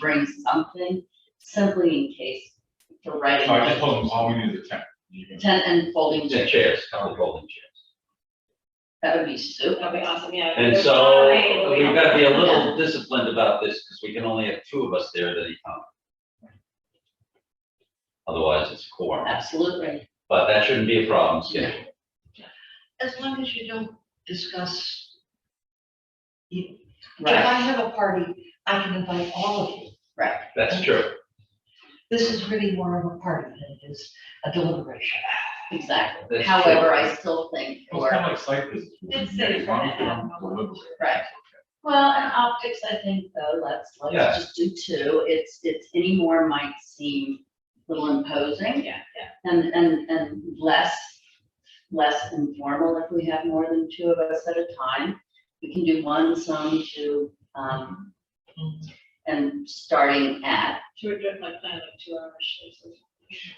bring something simply in case for writing. So I just told them, all we need is a tent. You can- Tent and folding The chairs. chairs, common folding chairs. That would be super. That'd be awesome, yeah. And There's so no way we- we've got to be a little disciplined about this because we can only have two of us there at any time. Otherwise, it's quorum, Absolutely. but that shouldn't be a problem schedule. As long as you don't discuss. you- If I Right, have a party, I can invite all of you. right. That's true. This is really more of a party than it is a deliberation. Exactly. That's However, true. I still think Well, It's for, kind of like site visits. It's safe As long as for we now. don't deliberate. Right. well, and optics, I think though, let's, Yeah. let's just do two. It's, it's any more might seem a little imposing Yeah, yeah. and, and, and less, less informal if we have more than two of us at a time. We can do one, some, two, um, and starting at, To adjust my plan of two hours. so it's-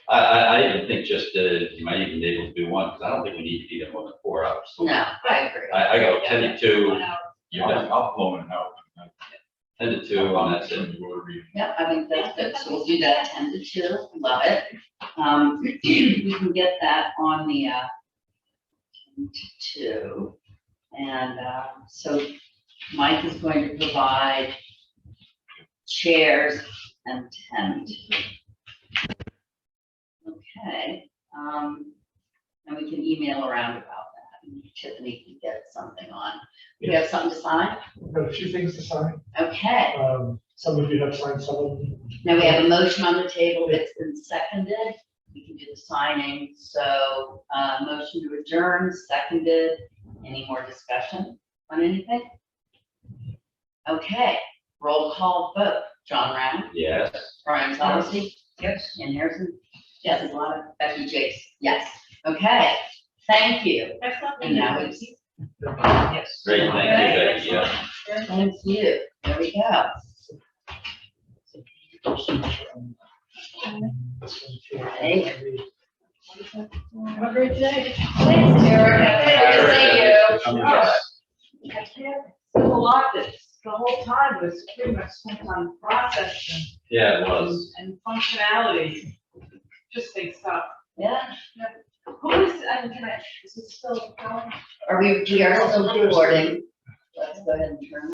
I, I, I even think just, uh, you might even be able to do one, because I don't think we need to be there more than four hours. no, I agree. I, I go Yeah, ten to yeah. One two, hour. you're done, I'll, I'll blow it out. ten to two, and that's it. Whatever you- Yeah, I think that's good, so we'll do that ten to two, love it. Um, we can get that on the, uh, 10 to two. And, uh, so Mike is going to provide chairs and tent. Okay, um, and we can email around about that, and Tiffany can get something on. We have something to sign? We've Got a few things to sign. Okay, Um, some of you have signed, some of them. Now we have a motion on the table that's been seconded. We can do the signing. So, uh, motion to adjourn, seconded. Any more discussion on anything? Okay, roll call vote. John Round, Yes. Brian Solacey, Yes. Ken Harrison. Yes, a lot of Becky Jakes. Yes. Okay, thank you. Excellent. And now it's, Yes. Great, thank you, Right, Becky, yeah. excellent. Very thank you. There we go. Have a great day. Thanks, Erica. Good to see you. I'm All impressed. right. I can't, there's a lot that's, the whole time was pretty much spent on process Yeah, it and, was. and functionality. Just big stuff. Yeah, Who is, I'm gonna, is it still going? are we, we are still recording? Let's go ahead and turn.